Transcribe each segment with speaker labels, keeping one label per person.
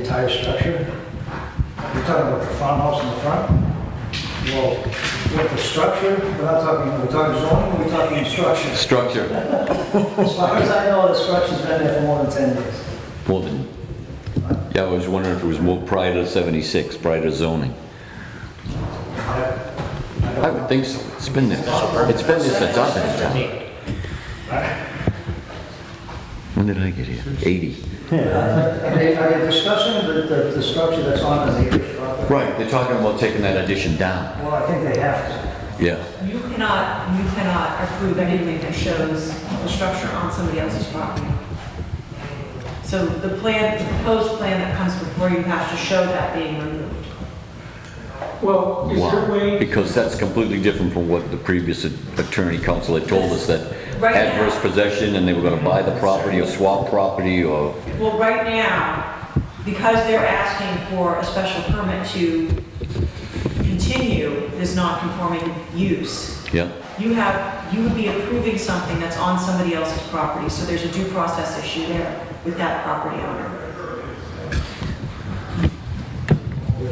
Speaker 1: entire structure? You're talking about the farmhouse in the front? Well, with the structure, we're not talking, we're talking zoning, we're talking structure.
Speaker 2: Structure,
Speaker 1: As far as I know, the structure's been there for more than 10 years.
Speaker 2: well then, yeah, I was wondering if it was moved prior to 76, prior to zoning.
Speaker 1: I I
Speaker 2: I
Speaker 1: don't
Speaker 2: would
Speaker 1: know.
Speaker 2: think so, it's been there, it's been there since I've been in town. When did I get here? 80.
Speaker 1: Are they, are they discussing the, the, the structure that's on the neighbor's property?
Speaker 2: Right, they're talking about taking that addition down.
Speaker 1: Well, I think they have to.
Speaker 2: Yeah,
Speaker 3: You cannot, you cannot approve anything that shows a structure on somebody else's property. So the plan, the proposed plan that comes before you has to show that being removed.
Speaker 4: Well, is there a
Speaker 2: wow.
Speaker 4: way,
Speaker 2: Because that's completely different from what the previous attorney counsel had told us, that
Speaker 3: Right now-
Speaker 2: adverse possession, and they were gonna buy the property or swap property or,
Speaker 3: Well, right now, because they're asking for a special permit to continue this non-conforming use,
Speaker 2: yeah,
Speaker 3: you have, you would be approving something that's on somebody else's property, so there's a due process issue there with that property owner.
Speaker 1: But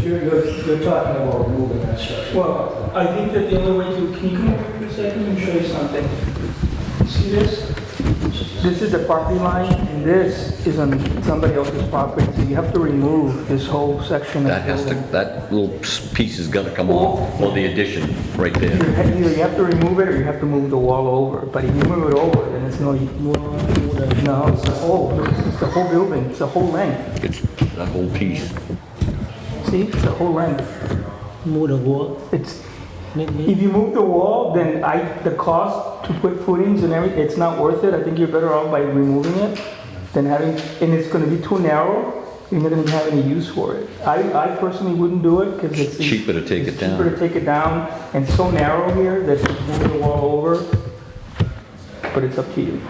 Speaker 1: you're, you're, you're talking about moving that structure.
Speaker 4: well, I think that the only way to, can you come over for a second and show you something? See this? This is the property line, and this is on somebody else's property, so you have to remove this whole section. of
Speaker 2: that has to,
Speaker 4: building.
Speaker 2: that little s- piece has gotta come off, or the addition, right there.
Speaker 4: You ha- Either you have to remove it, or you have to move the wall over, but if you move it over, then it's no, no, it's the whole, it's the whole building, it's the whole length,
Speaker 2: It's that whole piece.
Speaker 4: see, it's the whole length,
Speaker 5: move the wall,
Speaker 4: it's,
Speaker 5: make me,
Speaker 4: If you move the wall, then I, the cost to put footings and everything, it's not worth it. I think you're better off by removing it than having, and it's gonna be too narrow. You're not gonna have any use for it. I, I personally wouldn't do it because it's.
Speaker 2: Cheaper to take it
Speaker 4: it's Cheaper
Speaker 2: down.
Speaker 4: to take it down and so narrow here that you move the wall over. But it's up to you.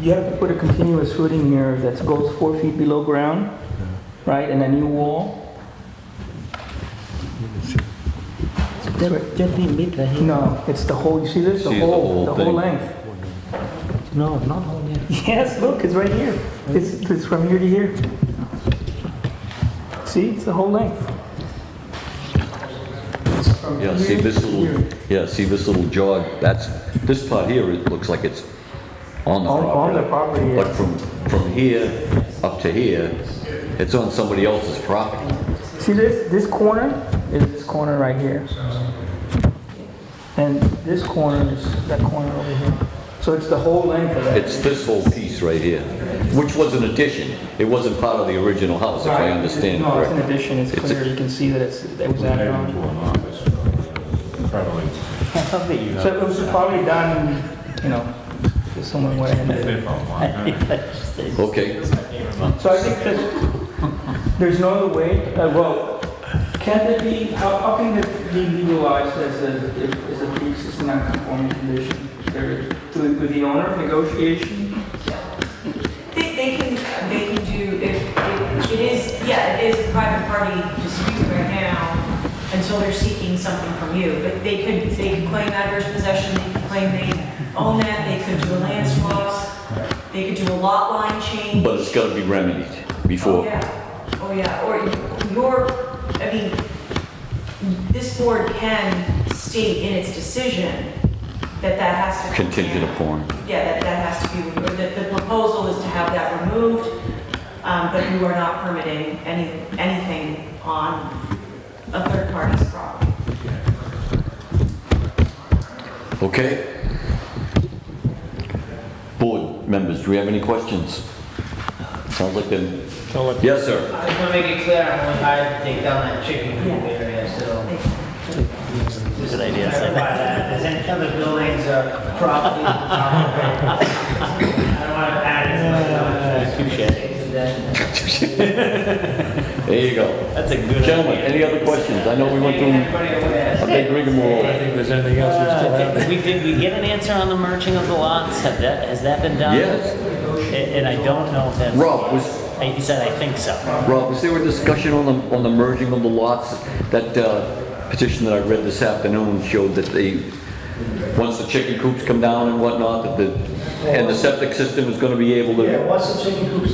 Speaker 4: You have to put a continuous footing here that goes four feet below ground, right, and a new wall.
Speaker 5: just, just be mid right here.
Speaker 4: No, it's the whole, you see this, the
Speaker 2: See the whole
Speaker 4: whole, the whole
Speaker 2: thing.
Speaker 4: length.
Speaker 5: No, not only,
Speaker 4: Yes, look, it's right here. It's, it's from here to here. See, it's the whole length. It's from
Speaker 2: Yeah, see
Speaker 4: here
Speaker 2: this
Speaker 4: to
Speaker 2: little,
Speaker 4: here.
Speaker 2: yeah, see this little jog, that's, this part here, it looks like it's on the
Speaker 4: On-
Speaker 2: property.
Speaker 4: on the property, yeah.
Speaker 2: But from, from here up to here, it's on somebody else's property.
Speaker 4: See this, this corner is this corner right here. And this corner is that corner over here. So it's the whole length of it.
Speaker 2: It's this whole piece right here, which was an addition. It wasn't part of the original house, if I understand
Speaker 4: No, it's an
Speaker 2: correctly.
Speaker 4: addition, it's
Speaker 2: It's a-
Speaker 4: clear, you can see that it's, that was added on.
Speaker 6: an office, probably
Speaker 4: So it was probably done, you know, someone went ahead and did it.
Speaker 2: Okay,
Speaker 4: So I think that there's no other way, uh, well, can it be, how, how can it be legalized as a, as a pre-existing non-conforming condition? There- Through, with the owner negotiation?
Speaker 3: They, they can, they can do, if, if- it is, yeah, it is a private party dispute right now until they're seeking something from you, but they could, they could claim adverse possession, they could claim they own that, they could do a land swap, they could do a lot line change.
Speaker 2: but it's gotta be remedied
Speaker 3: Oh,
Speaker 2: before.
Speaker 3: yeah, oh, yeah, or your, I mean, this board can state in its decision that that has to. come
Speaker 2: Contingent
Speaker 3: down.
Speaker 2: upon.
Speaker 3: Yeah, that, that has to be removed. The, the proposal is to have that removed, um, but you are not permitting any, anything on a third party's property.
Speaker 2: Okay? Board members, do we have any questions? Sounds like them. Yes, sir.
Speaker 7: I just want to make it clear, I'm only hired to take down that chicken coop
Speaker 3: Yeah.
Speaker 7: area, so.
Speaker 3: Thank you.
Speaker 7: Just to clarify that, if there's any other buildings or property. I don't want to add it.
Speaker 2: There you go.
Speaker 7: That's a good.
Speaker 2: Gentlemen, any other questions? I know we went through a big rigmarole.
Speaker 6: If there's anything else we still have.
Speaker 5: Uh, We, did we get an answer on the merging of the lots? Have that, has that been done?
Speaker 2: Yes.
Speaker 5: And and I don't know if that's.
Speaker 2: Rob, was,
Speaker 5: I- He said, I think so.
Speaker 2: Rob, was there a discussion on the, on the merging of the lots? That uh, petition that I read this afternoon showed that they, once the chicken coops come down and whatnot, that the
Speaker 8: And the septic system is gonna be able to
Speaker 2: Yeah, once the chicken coop's